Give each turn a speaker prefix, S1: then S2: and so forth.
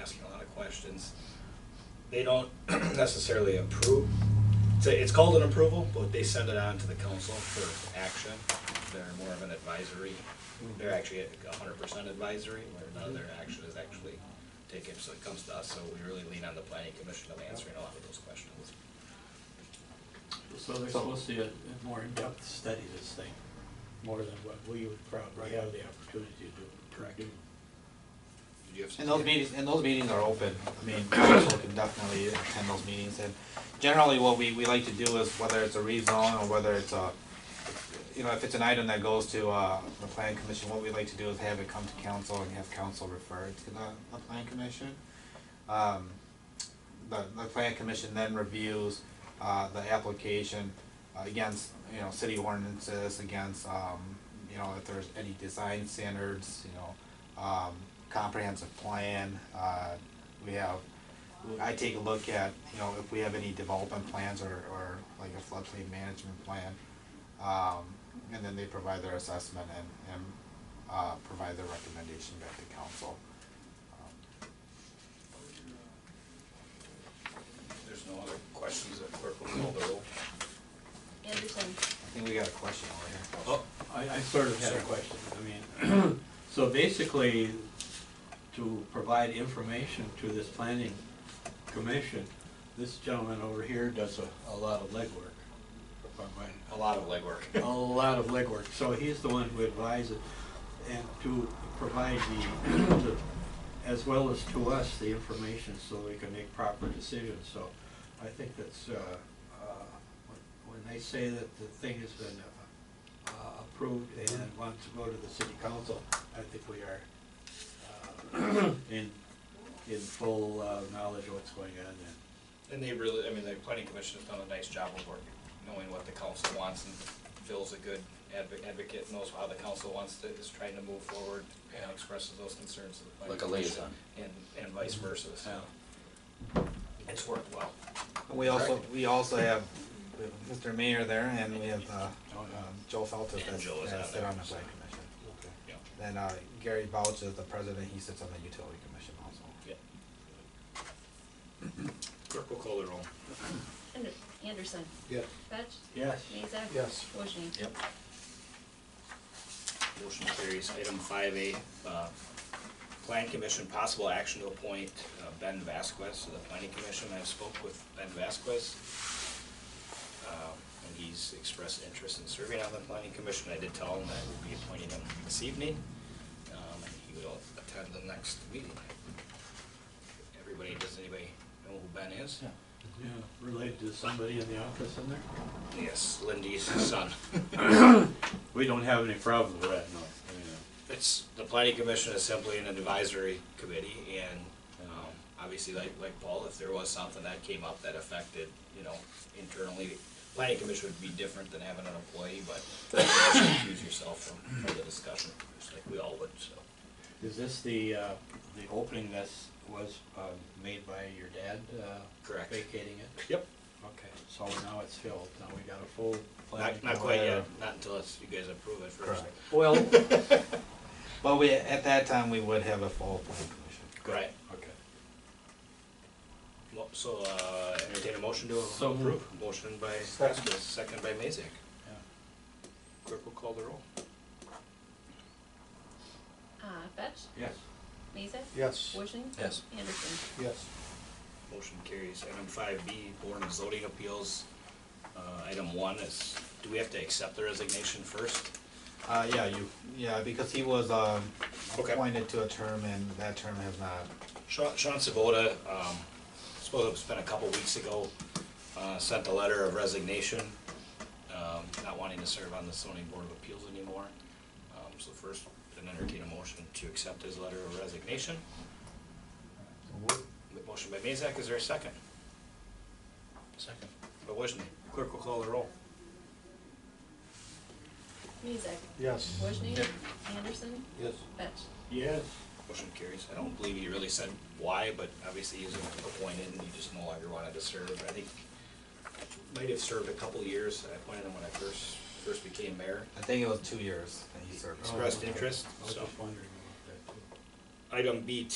S1: asking a lot of questions. They don't necessarily approve, it's, a- it's called an approval, but they send it on to the council for action. They're more of an advisory, they're actually a hundred percent advisory, where none of their action is actually taken, so it comes to us, so we really lean on the planning commission of answering a lot of those questions.
S2: So there's supposed to be a a more in-depth study of this thing, more than what we would probably have the opportunity to do.
S1: Correct.
S2: do.
S1: Did you have something?
S3: And those meetings, and those meetings are open, I mean, council can definitely attend those meetings, and generally what we, we like to do is, whether it's a rezone or whether it's a, you know, if it's an item that goes to, uh, the planning commission, what we like to do is have it come to council and have council refer it to the, the planning commission. Um, the, the planning commission then reviews, uh, the application against, you know, city ordinances, against, um, you know, if there's any design standards, you know, um, comprehensive plan, uh, we have, I take a look at, you know, if we have any development plans or, or like a floodplain management plan. Um, and then they provide their assessment and, and, uh, provide their recommendation back to council. Um,
S1: There's no other questions that clerk will call the roll.
S4: Anderson,
S3: I think we got a question over here.
S2: Oh, I, I sort of had a question, I mean, so basically, to provide information to this planning commission, this gentleman over here does a, a lot of legwork. if I'm right.
S1: A lot of legwork.
S2: a lot of legwork, so he's the one who advises and to provide the, the- as well as to us, the information so we can make proper decisions, so I think that's, uh, uh, when- when they say that the thing has been uh, approved and wants to go to the city council, I think we are uh, in, in full uh, knowledge of what's going on then.
S1: And they really, I mean, the planning commission has done a nice job of working, knowing what the council wants, and Phil's a good advo- advocate, knows how the council wants to, is trying to move forward, and expresses those concerns to the planning
S5: Like a
S1: commission.
S5: liaison.
S1: And, and vice versa, so it's worked well.
S3: And We also, we also have we have Mr. Mayor there and we have, uh, um, Joe Feltus
S1: And
S3: that's,
S1: Joe is
S3: that's
S1: on
S3: there
S1: there,
S3: on the
S1: so.
S3: planning commission.
S1: Yeah.
S3: Then, uh, Gary Bouch is the president, he sits on the utility commission also.
S1: Yeah. Clerk will call the roll.
S4: Ander- Anderson,
S2: Yes.
S4: Fetch,
S2: Yes.
S4: Mesa.
S2: Yes.
S4: Wojni.
S1: Yep. Motion carries. Item five A, uh, Plan Commission, possible action to appoint uh, Ben Vasquez to the Planning Commission. I spoke with Ben Vasquez. um, And he's expressed interest in serving on the Planning Commission. I did tell him that I would be appointing him this evening. um, And he will attend the next meeting. Everybody, does anybody know who Ben is?
S2: Yeah, related to somebody in the office in there?
S1: Yes, Lindy's son.
S2: We don't have any problem with that, no. I mean, uh,
S1: It's, the planning commission is simply an advisory committee and, um, obviously like, like Paul, if there was something that came up that affected, you know, internally, the planning commission would be different than having an employee, but you should excuse yourself from, from the discussion, just like we all would, so.
S2: Is this the, uh, the opening that's, was, um, made by your dad, uh?
S1: Correct.
S2: Vacating it?
S1: Yep.
S2: Okay, so now it's filled, now we got a full planning.
S1: Not, not quite yet, not until it's, you guys approve it first.
S3: Correct. Well, but we, at that time, we would have a full planning commission.
S1: Right,
S2: Okay.
S1: Mo- so, uh, entertain a motion to
S2: So
S1: approve, motion by
S3: Second.
S1: Vasquez, second by Mazak. Clerk will call the roll.
S4: Uh, Fetch,
S2: Yes.
S4: Mesa.
S2: Yes.
S4: Wojni.
S5: Yes.
S4: Anderson.
S2: Yes.
S1: Motion carries. Item five B, Board of Zoning Appeals. Uh, Item one is, do we have to accept the resignation first?
S3: Uh, yeah, you, yeah, because he was, um,
S1: Okay.
S3: appointed to a term and that term has not,
S1: Sean Sean Sabota, um, suppose it was been a couple weeks ago, uh, sent a letter of resignation, um, not wanting to serve on the zoning board of appeals anymore. Um, So first, an entertain a motion to accept his letter of resignation. Motion by Mazak, is there a second? Second. By Wojni. Clerk will call the roll.
S4: Mesa.
S2: Yes.
S4: Wojni.
S1: Yep.
S4: Anderson.
S2: Yes.
S4: Fetch.
S2: Yes.
S1: Motion carries. I don't believe he really said why, but obviously he was appointed and he just no longer wanted to serve. I think might have served a couple years. I appointed him when I first, first became mayor.
S3: I think it was two years that he served.
S1: Expressed interest,
S2: I was
S1: so.
S2: just wondering about that too.
S1: Item B